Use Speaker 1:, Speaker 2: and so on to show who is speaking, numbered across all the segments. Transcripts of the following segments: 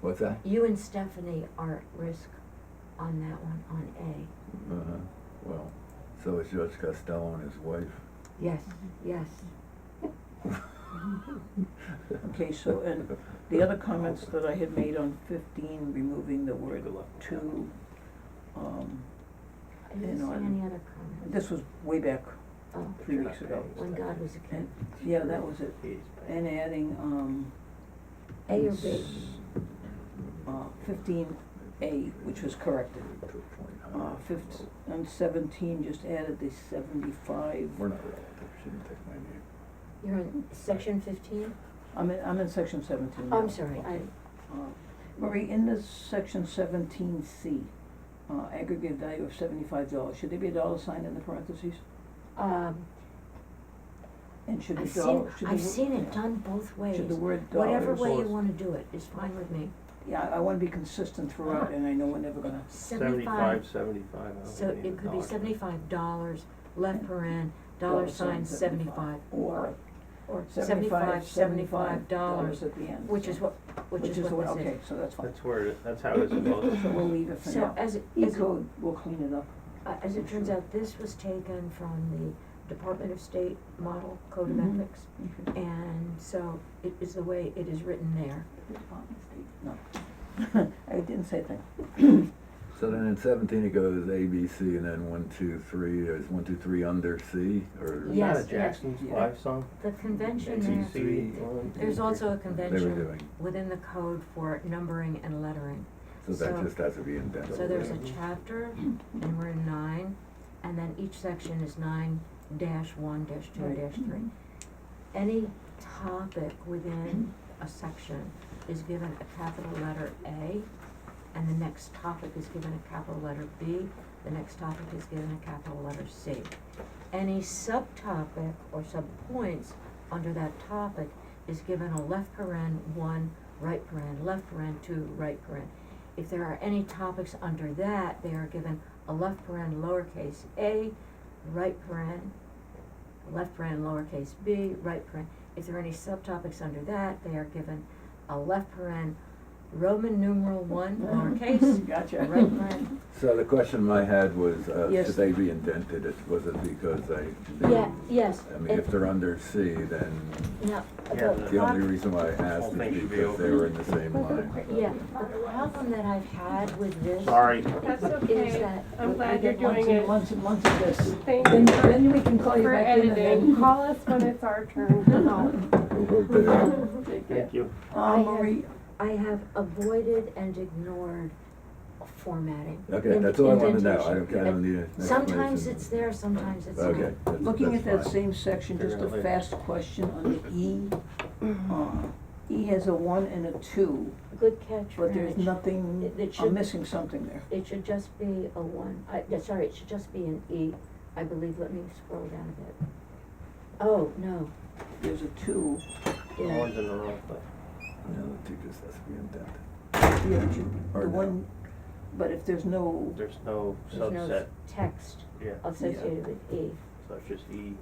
Speaker 1: What's that?
Speaker 2: You and Stephanie are at risk on that one, on
Speaker 1: Uh-huh, well, so is George Costello and his wife.
Speaker 2: A. Yes,
Speaker 3: Mm-hmm.
Speaker 2: yes.
Speaker 3: Okay, so, and the other comments that I had made on fifteen, removing the word to, um,
Speaker 2: I didn't
Speaker 3: And
Speaker 2: see
Speaker 3: on-
Speaker 2: any other comments.
Speaker 3: this was way back,
Speaker 2: Oh,
Speaker 3: three weeks ago.
Speaker 2: when God was a kid.
Speaker 3: Yeah, that was it, and adding, um,
Speaker 2: A or B?
Speaker 3: uh, fifteen A, which was corrected. Uh, fifteen, and seventeen, just added the seventy-five,
Speaker 1: We're not relatives, she didn't take my name.
Speaker 2: You're in section fifteen? Oh,
Speaker 3: I'm in, I'm in section seventeen now.
Speaker 2: I'm sorry, I,
Speaker 3: Uh, Marie, in this section seventeen C, uh, aggregate value of seventy-five dollars, should there be a dollar sign in the parentheses?
Speaker 2: um,
Speaker 3: And should the
Speaker 2: I've seen,
Speaker 3: dollar, should the.
Speaker 2: I've seen it done both ways.
Speaker 3: Should the word dollars.
Speaker 2: Whatever way you
Speaker 4: Dollars.
Speaker 2: wanna do it is fine with me.
Speaker 3: Yeah, I I wanna be consistent throughout and I know we're never gonna,
Speaker 4: Seventy-five, seventy-five, I don't
Speaker 2: So
Speaker 4: think
Speaker 2: it could be
Speaker 4: dollars.
Speaker 2: seventy-five dollars, left paren, dollar
Speaker 3: Dollar
Speaker 2: sign
Speaker 3: sign,
Speaker 2: seventy-five,
Speaker 3: or
Speaker 2: or
Speaker 3: seventy-five,
Speaker 2: seventy-five, seventy-five
Speaker 3: dollars
Speaker 2: dollars,
Speaker 3: at the end.
Speaker 2: which is
Speaker 3: so-
Speaker 2: what, which is what this
Speaker 3: Okay,
Speaker 2: is.
Speaker 3: so that's fine.
Speaker 4: That's where, it- that's how it's supposed
Speaker 3: So we'll
Speaker 4: to,
Speaker 3: leave it for
Speaker 2: So
Speaker 3: now.
Speaker 2: as it, as it,
Speaker 3: E-code, we'll clean it up.
Speaker 2: uh, as it turns out, this was taken from the Department of State Model Code of
Speaker 3: Mhm.
Speaker 2: Ethics, and so it is the way it is written there.
Speaker 3: No, I didn't say that.
Speaker 1: So then in seventeen it goes A, B, C, and then one, two, three, is one, two, three under C, or?
Speaker 4: is
Speaker 2: Yes,
Speaker 4: that
Speaker 2: yes.
Speaker 4: a Jackson's
Speaker 3: Yeah.
Speaker 4: live song?
Speaker 2: The convention
Speaker 1: Two,
Speaker 2: there,
Speaker 1: three,
Speaker 2: there's also a
Speaker 1: They were
Speaker 2: convention
Speaker 1: doing,
Speaker 2: within the code for numbering and lettering.
Speaker 1: so that
Speaker 2: so-
Speaker 1: just has to be indented.
Speaker 2: So there's a
Speaker 4: Mhm.
Speaker 2: chapter, and we're in nine, and then each section is nine dash one dash two
Speaker 3: Right.
Speaker 2: dash three. Any topic within a section is given a capital letter A, and the next topic is given a capital letter B, the next topic is given a capital letter C. Any subtopic or subpoints under that topic is given a left paren one, right paren, left paren two, right paren. If there are any topics under that, they are given a left paren lowercase a, right paren, left paren lowercase b, right paren. If there are any subtopics under that, they are given a left paren Roman numeral one lowercase,
Speaker 3: Mm-hmm. Gotcha.
Speaker 2: right paren.
Speaker 1: So the question I had was, uh,
Speaker 3: Yes.
Speaker 1: should they be indented, It- was it because they?
Speaker 2: Yeah, yes.
Speaker 1: I mean, if they're under C, then
Speaker 2: No,
Speaker 4: Yeah,
Speaker 2: the
Speaker 1: the only
Speaker 2: prob-
Speaker 1: reason why I
Speaker 4: Whole
Speaker 1: asked
Speaker 4: thing
Speaker 1: is
Speaker 4: should be
Speaker 1: because they
Speaker 4: over.
Speaker 1: were in the same line.
Speaker 2: yeah, the problem that I've had with this
Speaker 4: Sorry.
Speaker 5: That's
Speaker 2: is
Speaker 5: okay.
Speaker 2: that
Speaker 5: I'm
Speaker 2: we- we
Speaker 5: glad you're
Speaker 2: get
Speaker 5: doing
Speaker 3: Months
Speaker 5: it.
Speaker 3: and months and months of this.
Speaker 5: Thank
Speaker 3: Then,
Speaker 5: you for,
Speaker 3: then we can call you
Speaker 5: for
Speaker 3: back in and
Speaker 5: editing.
Speaker 3: then.
Speaker 5: Call us when it's our turn to help.
Speaker 1: Okay.
Speaker 4: Thank you.
Speaker 3: Uh,
Speaker 2: I have-
Speaker 3: Marie,
Speaker 2: I have avoided and ignored formatting.
Speaker 1: Okay,
Speaker 2: ind-
Speaker 1: that's all I wanna know, I
Speaker 2: indentation.
Speaker 1: don't, I don't need an explanation.
Speaker 2: Sometimes it's there, sometimes it's not.
Speaker 1: Okay, that's,
Speaker 3: looking at that
Speaker 1: that's fine.
Speaker 3: same section,
Speaker 4: Figure
Speaker 3: just
Speaker 4: it
Speaker 3: a
Speaker 4: out later.
Speaker 3: fast question on the E. Uh, E has a one and a two,
Speaker 2: Good catch,
Speaker 3: but there's
Speaker 2: Rich.
Speaker 3: nothing,
Speaker 2: It- it should-
Speaker 3: I'm missing something there.
Speaker 2: It should just be a one, I, yeah, sorry, it should just be an E, I believe, let me scroll down a bit. Oh, no,
Speaker 3: There's a two,
Speaker 2: yeah,
Speaker 4: One's in the wrong place.
Speaker 1: No, the two just has to be indented.
Speaker 3: the other two,
Speaker 1: Or
Speaker 3: the
Speaker 1: no.
Speaker 3: one, but if there's no,
Speaker 4: There's no
Speaker 2: there's no
Speaker 4: subset,
Speaker 2: s- text
Speaker 4: yeah,
Speaker 2: associated with E.
Speaker 4: so it's just E.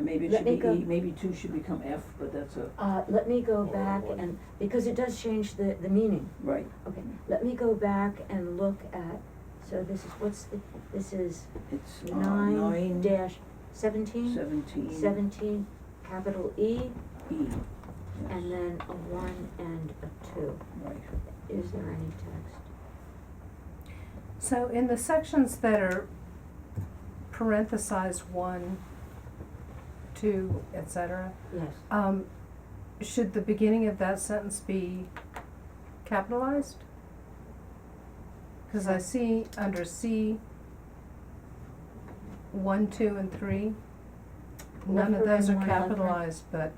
Speaker 3: maybe it
Speaker 2: Let
Speaker 3: should
Speaker 2: me
Speaker 3: be
Speaker 2: go-
Speaker 3: E, maybe two should become F, but that's a,
Speaker 2: Uh, let me go
Speaker 4: Or
Speaker 2: back
Speaker 4: one.
Speaker 2: and, because it does change the, the meaning.
Speaker 3: right,
Speaker 2: Okay, let me go back and look at, so this is, what's the, this is
Speaker 3: it's uh,
Speaker 2: nine
Speaker 3: nine, E.
Speaker 2: dash
Speaker 3: seventeen,
Speaker 2: seventeen, seventeen, capital E,
Speaker 3: E.
Speaker 2: and
Speaker 3: Yes,
Speaker 2: then a one and a two.
Speaker 3: Right.
Speaker 2: Is there any text?
Speaker 5: So in the sections that are parenthesized one, two, et cetera,
Speaker 2: Yes,
Speaker 5: um, should the beginning of that sentence be capitalized? Cause I see under C, one, two, and three, none of those are
Speaker 2: Left paren, one, left paren.
Speaker 5: capitalized, but,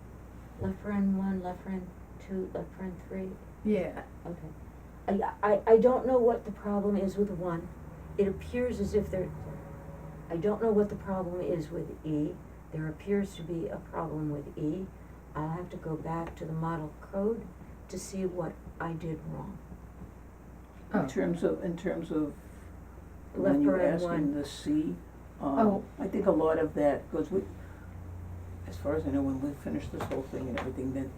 Speaker 2: left paren one, left paren two, left paren three,
Speaker 5: yeah,
Speaker 2: okay. I, I, I don't know what the problem is with one, it appears as if there, I don't know what the problem is with E. There appears to be a problem with E. I'll have to go back to the model code to see what I did wrong.
Speaker 5: Oh.
Speaker 3: In terms of, in terms of,
Speaker 2: Left
Speaker 3: when you were
Speaker 2: paren
Speaker 3: asking
Speaker 2: one,
Speaker 3: the C, um,
Speaker 5: Oh.
Speaker 3: I think a lot of that goes with, as far as I know, when we finish this whole thing and everything, then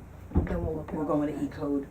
Speaker 5: then we'll look at
Speaker 3: we're
Speaker 5: all
Speaker 3: going
Speaker 5: that.
Speaker 3: to E code.